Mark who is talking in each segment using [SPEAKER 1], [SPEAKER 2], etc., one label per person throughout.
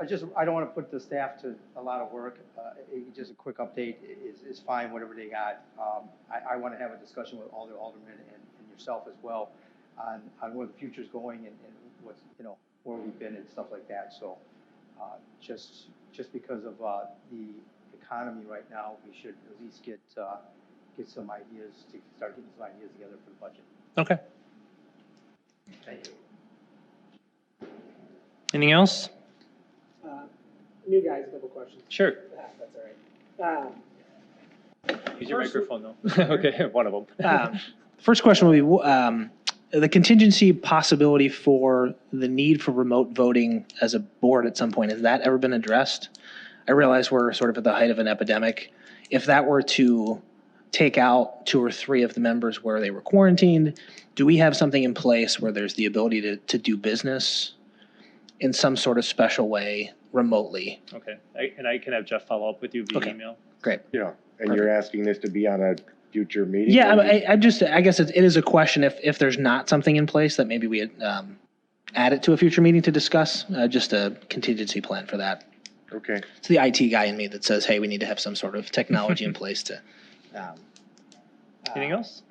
[SPEAKER 1] I just, I don't want to put the staff to a lot of work. Uh, it- Just a quick update is, is fine, whatever they got. Um, I, I want to have a discussion with all the aldermen and and yourself as well on, on where the future's going and and what's, you know, where we've been and stuff like that. So uh, just, just because of uh, the economy right now, we should at least get, uh, get some ideas, to start getting some ideas together for the budget.
[SPEAKER 2] Okay.
[SPEAKER 1] Thank you.
[SPEAKER 2] Anything else?
[SPEAKER 3] Uh, New guys, couple questions.
[SPEAKER 2] Sure.
[SPEAKER 3] Ah, That's all right. Um,
[SPEAKER 2] Use your
[SPEAKER 3] First-
[SPEAKER 2] microphone though. Okay, one of them.
[SPEAKER 3] Um, First question will be, wh- um, the contingency possibility for the need for remote voting as a board at some point, has that ever been addressed? I realize we're sort of at the height of an epidemic. If that were to take out two or three of the members where they were quarantined, do we have something in place where there's the ability to, to do business in some sort of special way remotely?
[SPEAKER 2] Okay, I- and I can have Jeff follow up with you via
[SPEAKER 3] Okay.
[SPEAKER 2] email.
[SPEAKER 3] Great.
[SPEAKER 4] Yeah, and you're asking this to be on a future meeting?
[SPEAKER 3] Yeah, I, I- I just, I guess it it is a question if, if there's not something in place that maybe we um, add it to a future meeting to discuss, uh, just a contingency plan for that.
[SPEAKER 4] Okay,
[SPEAKER 2] Um,
[SPEAKER 3] It's the IT guy in me that says, hey, we need to have some sort of technology in place to. um,
[SPEAKER 2] Anything
[SPEAKER 3] uh,
[SPEAKER 2] else?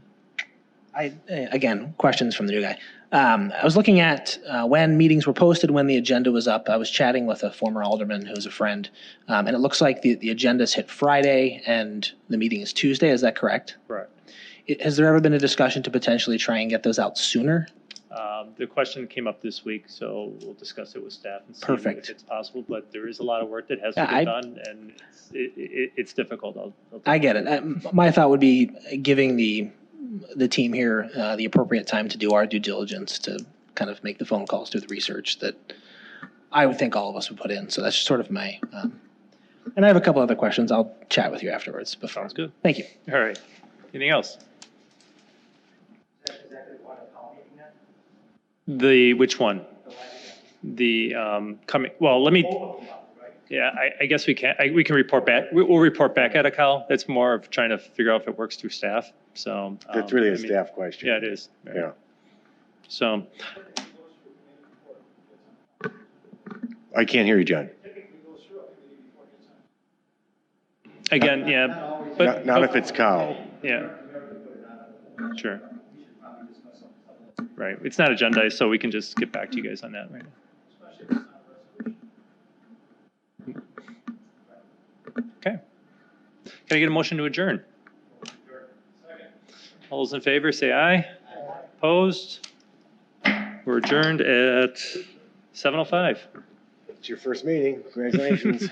[SPEAKER 1] Uh,
[SPEAKER 3] I, eh, again, questions from the new guy. Um, I was looking at uh, when meetings were posted, when the agenda was up. I was chatting with a former alderman who's a friend, um, and it looks like the, the agenda's hit Friday and the meeting is Tuesday. Is that correct?
[SPEAKER 2] Correct.
[SPEAKER 3] It- Has there ever been a discussion to potentially try and get those out sooner?
[SPEAKER 2] Um, the question came up this week, so we'll discuss it with staff and see
[SPEAKER 3] Perfect.
[SPEAKER 2] if it's possible, but there is a lot of work that has to
[SPEAKER 3] Yeah,
[SPEAKER 2] be
[SPEAKER 3] I-
[SPEAKER 2] done and it's, it, it, it's difficult. I'll- I'll-
[SPEAKER 3] I get it. Uh, m- My thought would be giving the the team here uh, the appropriate time to do our due diligence to kind of make the phone calls, do the research that I would think all of us would put in. So that's sort of my. Um, and I have a couple other questions. I'll chat with you afterwards. But
[SPEAKER 2] Sounds good.
[SPEAKER 3] Thank you.
[SPEAKER 2] All right. Anything else? The, which one? The, um, coming, well, let me, yeah, I, I guess we can, I, we can report back, we, we'll report back at a call. That's more of trying to figure out if it works through staff, so. um,
[SPEAKER 4] that's really
[SPEAKER 2] I
[SPEAKER 4] a
[SPEAKER 2] mean,
[SPEAKER 4] staff question.
[SPEAKER 2] Yeah, it is. Right.
[SPEAKER 4] Yeah,
[SPEAKER 2] So,
[SPEAKER 4] I can't hear you, John.
[SPEAKER 2] again, yeah,
[SPEAKER 4] Not
[SPEAKER 2] but.
[SPEAKER 4] not if it's Kyle.
[SPEAKER 2] Yeah. Sure. Right, it's not agendized, so we can just get back to you guys on that right now. Okay. Can I get a motion to adjourn? All those in favor, say aye. Opposed? We're adjourned at 7:05.
[SPEAKER 4] It's your first meeting, congratulations.